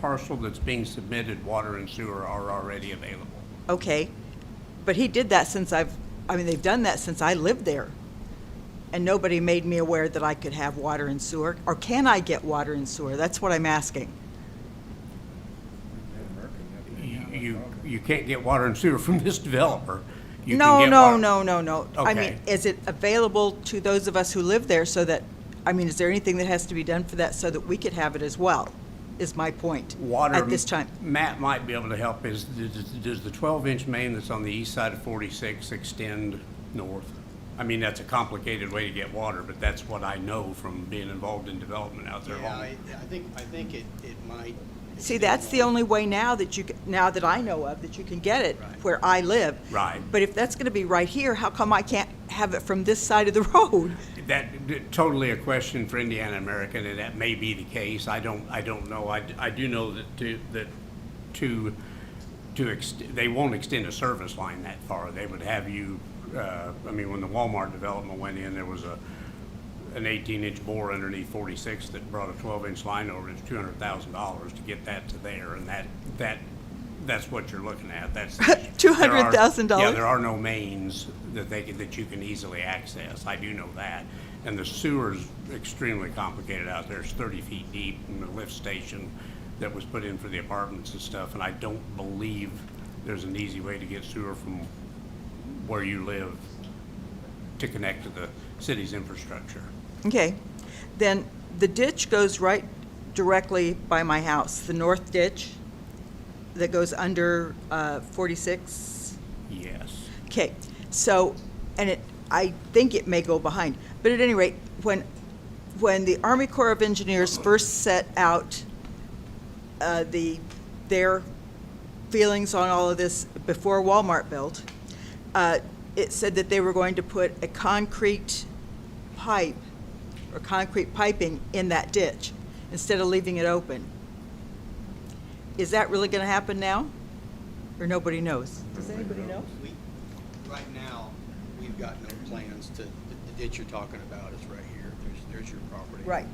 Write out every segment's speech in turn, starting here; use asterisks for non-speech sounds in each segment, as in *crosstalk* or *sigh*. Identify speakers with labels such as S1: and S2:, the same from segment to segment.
S1: parcel that's being submitted, water and sewer are already available.
S2: Okay, but he did that since I've, I mean, they've done that since I lived there. And nobody made me aware that I could have water and sewer, or can I get water and sewer? That's what I'm asking.
S1: You, you- you can't get water and sewer from this developer. You can
S2: No,
S1: get
S2: no,
S1: water-
S2: no, no, no. I
S1: Okay.
S2: mean, is it available to those of us who live there so that, I mean, is there anything that has to be done for that so that we could have it as well, is my point.
S1: Water.
S2: At this time.
S1: Matt might be able to help is, does- does the 12-inch main that's on the east side of 46 extend north? I mean, that's a complicated way to get water, but that's what I know from being involved in development out there.
S3: Yeah, I, I think, I think it, it might.
S2: See, that's the only way now that you, ca- now that I know of, that you can get it
S3: Right.
S2: where I live.
S1: Right.
S2: But if that's gonna be right here, how come I can't have it from this side of the *laughs* road?
S1: That, that- totally a question for Indiana American, and that may be the case. I don't, I don't know. I, d- I do know that to, that to, to, ex- they won't extend a service line that far. They would have you, uh, I mean, when the Walmart development went in, there was a, an eighteen-inch bore underneath forty-six that brought a twelve-inch line over. It's two hundred thousand dollars to get that to there, and that, that, that's what you're looking at. That's. the issue. There are-
S2: $200,000?
S1: Yeah, there are no mains that they, can- that you can easily access. I do know that. And the sewer's extremely complicated out there. It's thirty feet deep and the lift station that was put in for the apartments and stuff. And I don't believe there's an easy way to get sewer from where you live to connect to the city's infrastructure.
S2: Okay, then the ditch goes right directly by my house, the north ditch that goes under uh, 46.
S1: Yes.
S2: Okay, so, and it, I think it may go behind, but at any rate, when, when the Army Corps of Engineers first set out uh, the, their feelings on all of this before Walmart built, uh, it said that they were going to put a concrete pipe or concrete piping in that ditch instead of leaving it open. Is that really going to happen now? Or nobody knows? Does anybody know?
S3: We, right now, we've got no plans to, the the ditch you're talking about is right here. There's, there's your property.
S2: Right,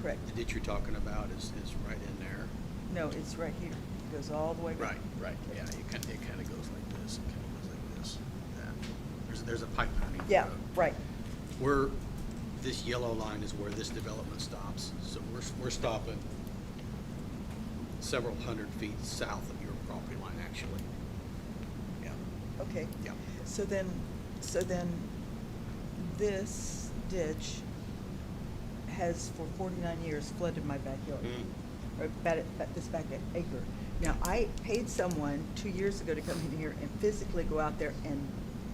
S2: correct.
S3: The ditch you're talking about is, is right in there.
S2: No, it's right here. It goes all the way back.
S3: Right, right, yeah, it kind, it kind of goes like this, it kind of goes like this, that. There's, there's a pipe underneath the
S2: Yeah,
S3: road.
S2: right.
S3: We're, this yellow line is where this development stops, so we're, we're stopping several hundred feet south of your property line, actually. Yeah,
S2: Okay.
S3: yeah.
S2: So then, so then this ditch has for 49 years flooded my backyard.
S3: Mm.
S2: Or about, it- about this back acre. Now, I paid someone two years ago to come in here and physically go out there and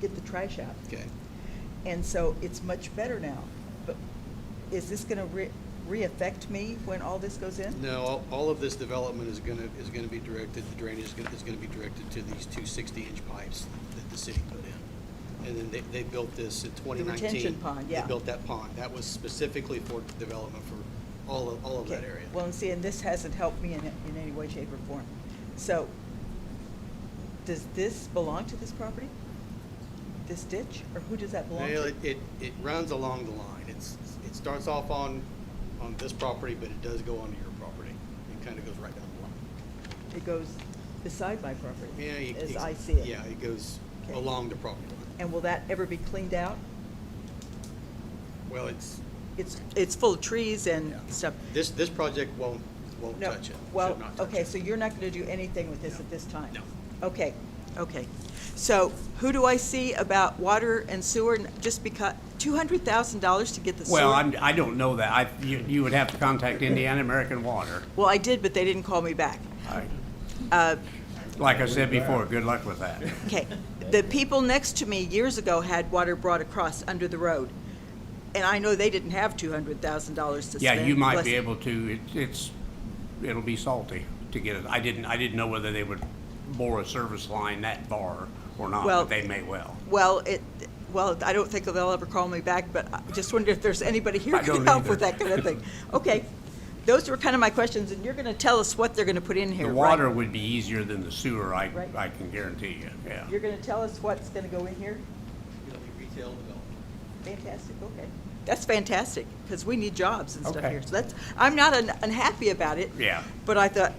S2: get the trash out.
S3: Okay,
S2: And so it's much better now. But is this going to re, re-affect me when all this goes in?
S3: no, all- all of this development is gonna, is gonna be directed, the drainage is gonna, is gonna be directed to these two sixty-inch pipes that the city put in. And then they, they built this in twenty nineteen.
S2: retention pond, yeah.
S3: They built that pond, that was specifically for development for all of, all of that
S2: Okay.
S3: area.
S2: Well, and see, and this hasn't helped me in, in any way, shape, or form. So, does this belong to this property? This ditch, or who does that belong
S3: Well,
S2: to?
S3: it, it, it runs along the line. It's, it starts off on, on this property, but it does go onto your property. It kind of goes right down the line.
S2: It goes beside my property,
S3: Yeah, it-
S2: as
S3: it's-
S2: I see it.
S3: Yeah, it goes
S2: Okay.
S3: along the property line.
S2: And will that ever be cleaned out?
S3: Well, it's,
S2: It's, it's full of trees and
S3: Yeah.
S2: stuff.
S3: this, this project won't, won't
S2: No,
S3: touch it. Should
S2: well,
S3: not touch
S2: okay,
S3: it.
S2: so you're not gonna do anything with this
S3: No.
S2: at this time?
S3: No.
S2: Okay, okay. So who do I see about water and sewer, n- just because, two hundred thousand dollars to get the sewer?
S1: Well, I'm, I don't know that. I, you, you would have to contact Indiana American Water.
S2: Well, I did, but they didn't call me back.
S1: I-
S2: Uh,
S1: Like I said before, good luck with that.
S2: Okay, the people next to me years ago had water brought across under the road, and I know they didn't have two hundred thousand dollars to spend.
S1: Yeah, you might be
S2: bless-
S1: able to, it- it's, it'll be salty to get it. I didn't, I didn't know whether they would bore a service line that far or not,
S2: Well-
S1: but they may well.
S2: Well, it, well, I don't think they'll ever call me back, but I just wondered if there's anybody here
S1: I
S2: who can
S1: don't
S2: help with
S1: either.
S2: that kind of thing. Okay, those were kind of my questions, and you're gonna tell us what they're gonna put in here,
S1: The
S2: right?
S1: water would be easier than the sewer, I,
S2: Right.
S1: I can guarantee you, yeah.
S2: You're gonna tell us what's gonna go in here?
S3: It'll be retail development.
S2: Fantastic, okay. That's fantastic, because we need jobs and stuff
S1: Okay.
S2: here. So that's, I'm not un- unhappy about it.
S1: Yeah.
S2: But I thought,